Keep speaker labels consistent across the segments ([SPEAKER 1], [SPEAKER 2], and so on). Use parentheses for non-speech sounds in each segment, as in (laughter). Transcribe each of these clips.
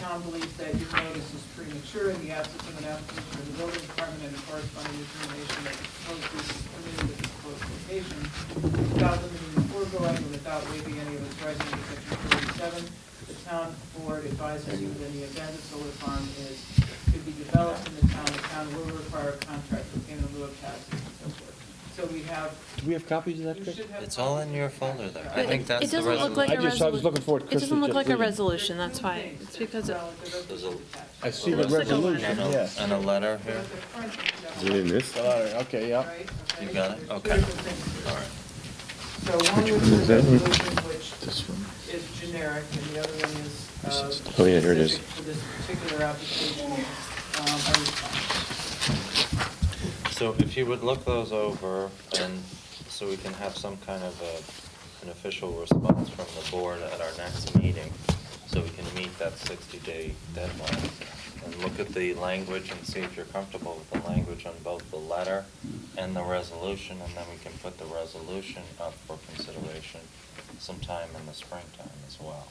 [SPEAKER 1] Tom believes that your notice is premature in the absence of an application of the building department and a corresponding determination that the proposed use is permitted at this proposed location without limiting the foregoing and without waiving any of its rights under section thirty-seven. The town board advises you that in the event a solar farm is, to be developed in the town, the town will require a contract for payment of lieu of taxes and so forth. So we have,
[SPEAKER 2] Do we have copies of that,
[SPEAKER 1] you
[SPEAKER 2] Chris?
[SPEAKER 1] should have.
[SPEAKER 3] It's all in your
[SPEAKER 1] copies
[SPEAKER 3] folder
[SPEAKER 1] of
[SPEAKER 3] there.
[SPEAKER 1] that.
[SPEAKER 3] I think that's
[SPEAKER 4] It
[SPEAKER 3] the
[SPEAKER 4] doesn't look like a
[SPEAKER 2] I
[SPEAKER 4] resolution.
[SPEAKER 2] just, I was looking for it,
[SPEAKER 4] It
[SPEAKER 2] Chris was
[SPEAKER 4] doesn't look
[SPEAKER 2] just
[SPEAKER 4] like a
[SPEAKER 2] reading.
[SPEAKER 4] resolution, that's
[SPEAKER 1] There's
[SPEAKER 4] why.
[SPEAKER 1] two things
[SPEAKER 4] It's
[SPEAKER 1] that
[SPEAKER 4] because of,
[SPEAKER 1] well, the resolution is attached.
[SPEAKER 2] I see the
[SPEAKER 4] Looks like a letter.
[SPEAKER 2] resolution, yes.
[SPEAKER 3] And a letter
[SPEAKER 1] There's
[SPEAKER 3] here?
[SPEAKER 1] the front
[SPEAKER 5] Is it in
[SPEAKER 1] that
[SPEAKER 5] this?
[SPEAKER 2] All right, Uh, Okay,
[SPEAKER 1] you have,
[SPEAKER 2] yeah.
[SPEAKER 1] right,
[SPEAKER 3] You
[SPEAKER 1] okay?
[SPEAKER 3] got it?
[SPEAKER 1] There's two
[SPEAKER 3] Okay.
[SPEAKER 1] different things.
[SPEAKER 3] All right.
[SPEAKER 1] So one
[SPEAKER 5] Which
[SPEAKER 1] was
[SPEAKER 5] one is
[SPEAKER 1] the
[SPEAKER 5] that one?
[SPEAKER 1] resolution, which
[SPEAKER 5] This one?
[SPEAKER 1] is generic, and the other one is, uh,
[SPEAKER 5] Oh, yeah, here it is.
[SPEAKER 1] specific to this particular application. Um, I was-
[SPEAKER 3] So if you would look those over and so we can have some kind of a, an official response from the board at our next meeting, so we can meet that sixty-day deadline. And look at the language and see if you're comfortable with the language on both the letter and the resolution, and then we can put the resolution up for consideration sometime in the springtime as well.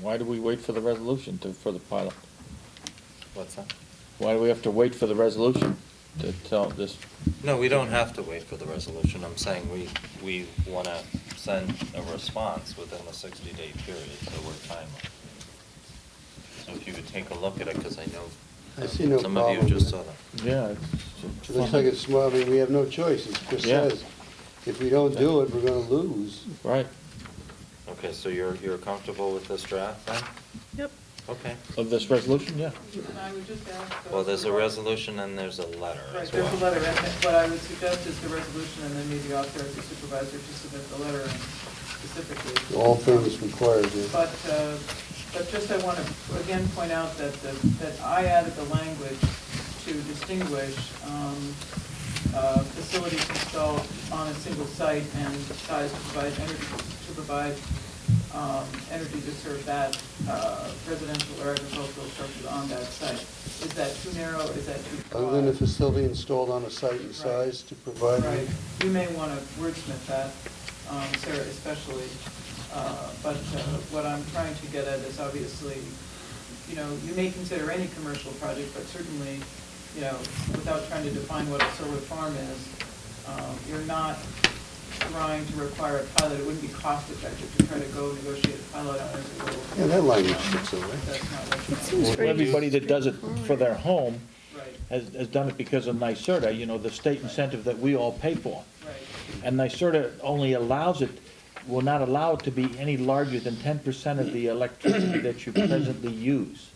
[SPEAKER 2] Why do we wait for the resolution to, for the pilot?
[SPEAKER 3] What's that?
[SPEAKER 2] Why do we have to wait for the resolution to tell this?
[SPEAKER 3] No, we don't have to wait for the resolution. I'm saying we, we want to send a response within the 60-day period, so we're timely. So if you would take a look at it, because I
[SPEAKER 6] I
[SPEAKER 3] know
[SPEAKER 6] see no
[SPEAKER 3] some of you
[SPEAKER 6] problem
[SPEAKER 3] just
[SPEAKER 6] with
[SPEAKER 3] saw
[SPEAKER 6] it.
[SPEAKER 3] that.
[SPEAKER 2] Yeah. it's-
[SPEAKER 6] It Looks like it's, well, I mean, we have no choice, as Chris
[SPEAKER 2] Yeah.
[SPEAKER 6] says. If we don't do it, we're gonna lose.
[SPEAKER 2] Right,
[SPEAKER 3] Okay, so you're, you're comfortable with this draft then?
[SPEAKER 4] yep.
[SPEAKER 3] Okay.
[SPEAKER 2] of this resolution, yeah.
[SPEAKER 1] And I would just ask.
[SPEAKER 3] Well, there's a
[SPEAKER 1] uh,
[SPEAKER 3] resolution and there's a letter
[SPEAKER 1] Right,
[SPEAKER 3] as
[SPEAKER 1] there's a
[SPEAKER 3] well.
[SPEAKER 1] letter, and that- what I would suggest is the resolution, and then maybe authorize the supervisor to submit the letter and specifically.
[SPEAKER 6] All things required, yeah.
[SPEAKER 1] But, uh, but just I want to again point out that, the- that I added the language to distinguish um, uh, facilities installed on a single site and size to provide energy, to provide um, energy to serve that uh, residential or agricultural structure on that site. Is that too narrow, is that too
[SPEAKER 6] Other than a
[SPEAKER 1] broad?
[SPEAKER 6] facility installed on a site and size to provide.
[SPEAKER 1] Right, you may want to wordsmith that, um, Sarah especially, uh, but uh, what I'm trying to get at is obviously, you know, you may consider any commercial project, but certainly, you know, without trying to define what a solar farm is, um, you're not trying to require a pilot, it wouldn't be cost effective to try to go negotiate a pilot on every little.
[SPEAKER 6] Yeah, that language fits all right.
[SPEAKER 1] That's not what you
[SPEAKER 4] It
[SPEAKER 1] want.
[SPEAKER 4] seems
[SPEAKER 2] Well,
[SPEAKER 4] pretty
[SPEAKER 2] Everybody that does it for their home
[SPEAKER 1] Right,
[SPEAKER 2] has, has done it because of NYSERDA, you know, the state incentive that we all pay for.
[SPEAKER 1] right,
[SPEAKER 2] And NYSERDA only allows it, will not allow it to be any larger than ten percent of the electricity that you presently use.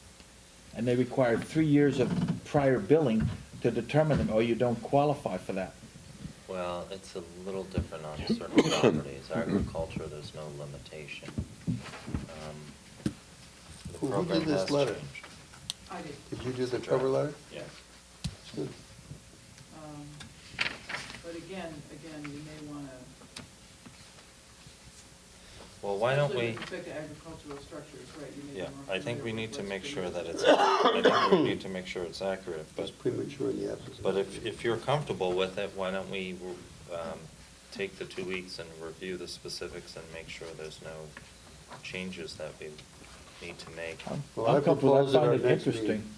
[SPEAKER 2] And they require three years of prior billing to determine it, or you don't qualify for that.
[SPEAKER 3] Well, it's a little different on certain properties. Agriculture, there's no limitation. Um, The
[SPEAKER 6] Who- who
[SPEAKER 3] program
[SPEAKER 6] did this
[SPEAKER 3] has
[SPEAKER 6] letter?
[SPEAKER 3] changed.
[SPEAKER 1] I did.
[SPEAKER 6] Did you do the cover letter?
[SPEAKER 3] Yeah.
[SPEAKER 6] It's good.
[SPEAKER 1] Um, But again, again, you may want to.
[SPEAKER 3] Well, why don't
[SPEAKER 1] Especially
[SPEAKER 3] we?
[SPEAKER 1] with respect to agricultural structures, right, you may
[SPEAKER 3] Yeah,
[SPEAKER 1] be more
[SPEAKER 3] I think we
[SPEAKER 1] familiar
[SPEAKER 3] need
[SPEAKER 1] with
[SPEAKER 3] to
[SPEAKER 1] what's
[SPEAKER 3] make
[SPEAKER 1] been
[SPEAKER 3] sure that
[SPEAKER 1] used.
[SPEAKER 3] it's, I think we need to make sure it's accurate, but,
[SPEAKER 6] It's premature in the absence. of-
[SPEAKER 3] but if, if you're comfortable with it, why don't we, um, take the two weeks and review the specifics and make sure there's no changes that we need to make?
[SPEAKER 5] Um,
[SPEAKER 2] I'm
[SPEAKER 6] Well, I
[SPEAKER 2] I'm comfortable, I
[SPEAKER 6] propose at our
[SPEAKER 2] find it
[SPEAKER 6] next
[SPEAKER 2] interesting
[SPEAKER 6] meeting.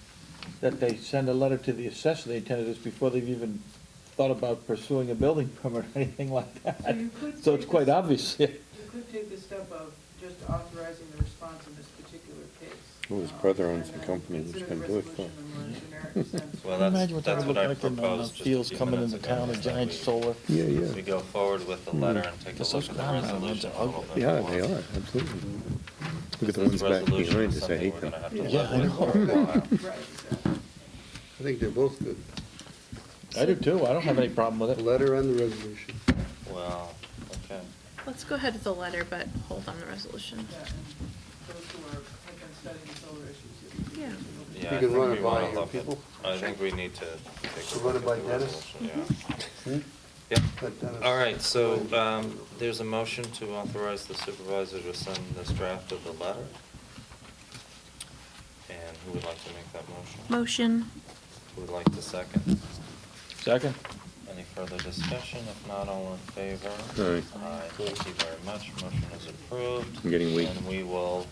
[SPEAKER 2] that they send a letter to the assessor, they attended this before they've even thought about pursuing a building (laughs) permit or anything like
[SPEAKER 1] So
[SPEAKER 2] that.
[SPEAKER 1] you could
[SPEAKER 2] So it's
[SPEAKER 1] take
[SPEAKER 2] quite
[SPEAKER 1] this-
[SPEAKER 2] obvious, (laughs) yeah.
[SPEAKER 1] You could take the step of just authorizing the response in this particular case.
[SPEAKER 5] Well, his
[SPEAKER 1] um,
[SPEAKER 5] brother owns
[SPEAKER 1] and
[SPEAKER 5] the
[SPEAKER 1] then
[SPEAKER 5] company that's
[SPEAKER 1] consider the
[SPEAKER 5] gonna do it for
[SPEAKER 1] resolution in a generic sense.
[SPEAKER 3] Well, that's,
[SPEAKER 2] Imagine what that
[SPEAKER 3] that's
[SPEAKER 2] would
[SPEAKER 3] what I
[SPEAKER 2] look like in, uh,
[SPEAKER 3] proposed just a
[SPEAKER 2] Fields
[SPEAKER 3] few
[SPEAKER 2] coming
[SPEAKER 3] minutes
[SPEAKER 2] into
[SPEAKER 3] ago,
[SPEAKER 2] town, a
[SPEAKER 3] is that
[SPEAKER 2] giant
[SPEAKER 3] we-
[SPEAKER 2] solar.
[SPEAKER 5] Yeah,
[SPEAKER 3] We
[SPEAKER 5] yeah.
[SPEAKER 3] go forward with the letter and take a
[SPEAKER 2] Because
[SPEAKER 3] look
[SPEAKER 2] those
[SPEAKER 3] at the
[SPEAKER 2] ground mounts are
[SPEAKER 3] resolution a little bit
[SPEAKER 2] ugly.
[SPEAKER 3] more.
[SPEAKER 5] Yeah, they are, absolutely. Look at the ones back behind us, I hate them.
[SPEAKER 2] Yeah, I
[SPEAKER 3] know.
[SPEAKER 1] Right, exactly.
[SPEAKER 6] I think they're both good,
[SPEAKER 2] I do too, I don't have any problem with
[SPEAKER 6] the
[SPEAKER 2] it.
[SPEAKER 6] letter and the resolution.
[SPEAKER 5] (laughs)
[SPEAKER 3] Well, okay.
[SPEAKER 4] Let's go ahead with the letter, but hold on the resolution.
[SPEAKER 1] Yeah, and those who are, have been studying solar issues.
[SPEAKER 4] Yeah.
[SPEAKER 3] Yeah, I
[SPEAKER 6] You can
[SPEAKER 3] think
[SPEAKER 6] run it
[SPEAKER 3] we wanna
[SPEAKER 6] by your
[SPEAKER 3] look at-
[SPEAKER 6] people.
[SPEAKER 3] I think we need to take a
[SPEAKER 6] Run
[SPEAKER 3] look
[SPEAKER 6] it
[SPEAKER 3] at
[SPEAKER 6] by
[SPEAKER 3] the
[SPEAKER 6] Dennis?
[SPEAKER 3] resolution,
[SPEAKER 6] Hmm?
[SPEAKER 3] yeah.
[SPEAKER 6] Let
[SPEAKER 3] Yeah,
[SPEAKER 6] Dennis-
[SPEAKER 3] all right, so, um, there's a motion to authorize the supervisor to send this draft of the letter. And who would like to make that motion?
[SPEAKER 4] Motion.
[SPEAKER 3] Who would like to second?
[SPEAKER 2] Second?
[SPEAKER 3] Any further discussion? If not, all in favor?
[SPEAKER 5] Aye.
[SPEAKER 3] Aye, thank you very much, motion is approved.
[SPEAKER 5] I'm getting weak.
[SPEAKER 3] And we will